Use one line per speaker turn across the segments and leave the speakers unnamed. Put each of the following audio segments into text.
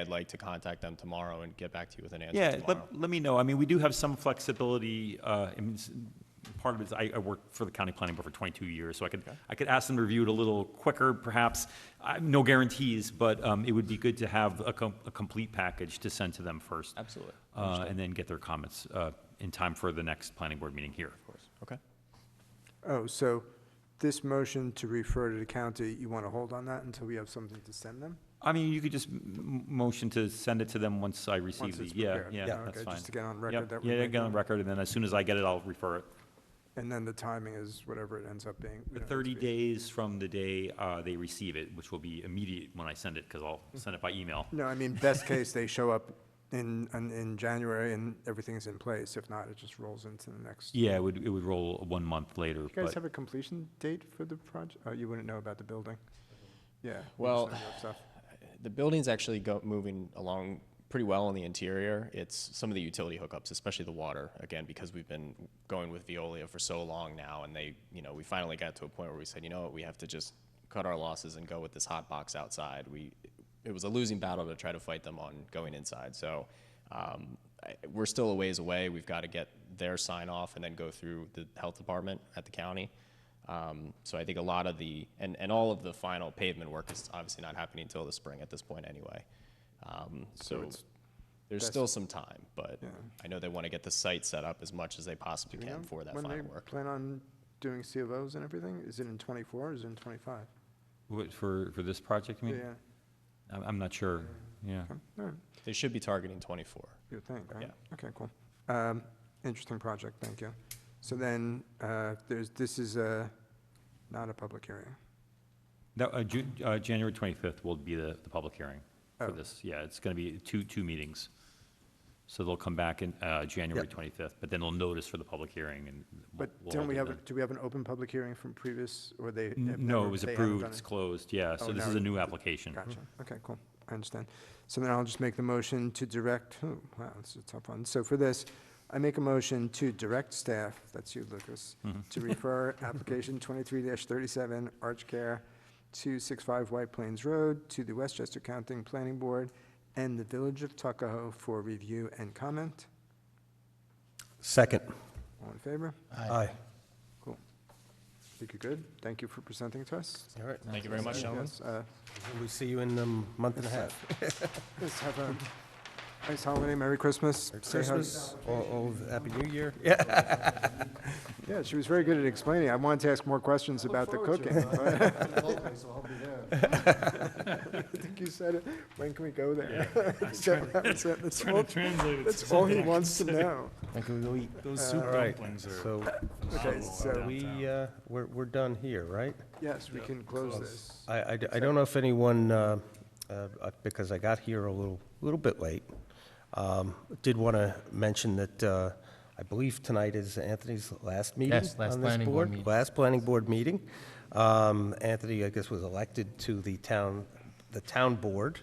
I'd like to contact them tomorrow and get back to you with an answer
Yeah,
tomorrow.
let, let me know. I mean, we do have some flexibility. uh, I mean, s- part of it is I, I worked for the county planning board for 22 years, so I could, I could ask them to review it a little quicker, perhaps. I- No guarantees, but um, it would be good to have a, com- a complete package to send to them first.
Absolutely.
uh, And then get their comments uh, in time for the next planning board meeting here. Of course.
Okay.
Oh, so this motion to refer to the county, you want to hold on that until we have something to send them?
I mean, you could just m- m- motion to send it to them once I receive
Once
the,
it's
yeah,
prepared.
yeah,
Yeah.
that's
Okay,
fine.
just to get on
Yep,
record that we
Yeah,
make
get on
that.
record, and then as soon as I get it, I'll refer it.
And then the timing is whatever it ends up being. we
The
don't have to
30
be-
days from the day uh, they receive it, which will be immediate when I send it, because I'll
Hmm.
send it by email.
No, I mean, best case, they show up in, in, in January and everything's in place. If not, it just rolls into the next.
Yeah, it would, it would roll one month later,
You guys
but
have a completion date for the project? Oh, you wouldn't know about the building? Yeah. we just
Well,
have that stuff.
The building's actually go, moving along pretty well on the interior. It's some of the utility hookups, especially the water, again, because we've been going with Veolia for so long now, and they, you know, we finally got to a point where we said, you know what, we have to just cut our losses and go with this hot box outside. We, it was a losing battle to try to fight them on going inside. So um, I, we're still a ways away. We've got to get their sign off and then go through the health department at the county. Um, so I think a lot of the, and, and all of the final pavement work is obviously not happening until the spring at this point anyway. Um, so
it's-
there's
that's-
still some time, but
Yeah.
I know they want to get the site set up as much as they possibly
Do we
can
know
for that
when they
final work.
Plan on doing CVOs and everything? Is it in twenty-four or is it in twenty-five?
What, for, for this project, I
Yeah,
mean, I'm, I'm not sure, yeah.
okay, all right,
They should be targeting 24.
you would think, right?
Yeah.
Okay, cool. Um, interesting project, thank you. So then, uh, there's, this is a, not a public hearing.
No, uh, Ju- uh, January 25th will be the, the public hearing
Oh.
for this, yeah, it's gonna be two, two meetings. So they'll come back in, uh, January
Yep.
25th, but then they'll notice for the public hearing and. we'll-
But
we'll
don't
hold
we
it
have, a-
then.
do we have an open public hearing from previous, or they? have
N- No,
never-
it was
they haven't
approved,
done
it's
it?
closed, yeah, so
Oh,
this
now
is a
it-
new application.
Gotcha, Mm-hmm. okay, cool, I understand. So then I'll just make the motion to direct, oh, wow, this is a tough one. So for this, I make a motion to direct staff, that's you, Lucas, to refer application twenty-three thirty-seven, Arch Care, two six five White Plains Road, to the Westchester County Planning Board and the Village of Tuckahoe for review and comment.
Second.
All in favor?
Aye.
Cool. Think you're good? Thank you for presenting to us.
All right.
Thank you very much, gentlemen.
Yes, uh,
We'll see you in a month and a half.
Let's have a nice holiday, Merry Christmas.
Merry
Say hi-
Christmas, all, all, Happy New Year.
Yeah, she was very good at explaining. I wanted to ask more questions about the cooking. but- I think you said it. When can we go there? That's it. That's all- that's all he wants to know.
Those soup dumplings are.
So,
Okay,
so
so,
we, uh, we're, we're done here, right?
yes, we can close this.
I, I d- I don't know if anyone, uh, uh, uh, because I got here a little, little bit late, um, did want to mention that uh, I believe tonight is Anthony's last meeting on
Yes,
this
last planning board
board.
meeting.
Last planning board meeting. Um, Anthony, I guess, was elected to the town, the town board,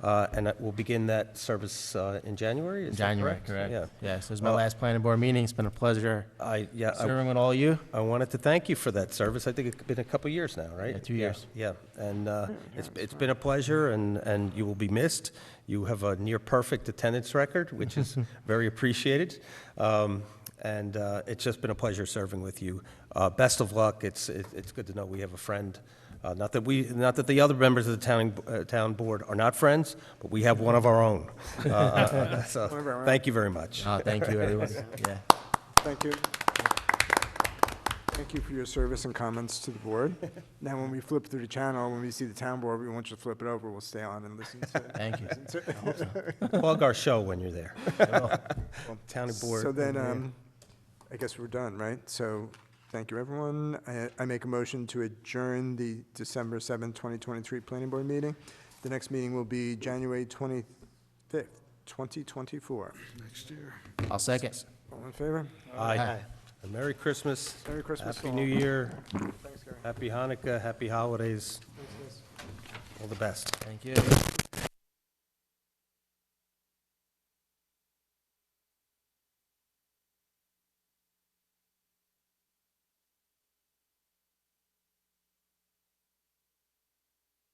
uh, and that will begin that service uh, in January, is that
January,
correct?
correct.
Yeah.
Yes, it was my
Well- Uh,
last planning board meeting. It's been a pleasure
I, yeah, I-
serving with all you.
I wanted to thank you for that service. I think it's been a couple years now, right?
Yeah, two years.
Yeah, and uh,
Mm-hmm.
it's, it's been a pleasure, and, and you will be missed. You have a near-perfect attendance record, which is very appreciated. Um, And uh, it's just been a pleasure serving with you. Uh, Best of luck. It's, it- it's good to know we have a friend. Uh, Not that we, not that the other members of the town, uh, town board are not friends, but we have one of our own. Uh, uh, So,
One of our own.
thank you very much.
Oh, thank you, everyone. Yeah.
Thank you. Thank you for your service and comments to the board. Now, when we flip through the channel, when we see the town board, we want you to flip it over. We'll stay on and listen to.
Thank you.
Plug our show when you're there. Town board. Mm-hmm.
So then, um, I guess we're done, right? So, thank you, everyone. I, I make a motion to adjourn the December seventh, twenty twenty-three planning board meeting. The next meeting will be January twenty-fifth, twenty twenty-four.
I'll second.
All in favor?
Aye.
Aye.
And Merry Christmas.
Merry Christmas to
Happy
all.
New Year.
Thanks, Gary.
Happy Hanukkah. Happy holidays. All the best.
Thank you.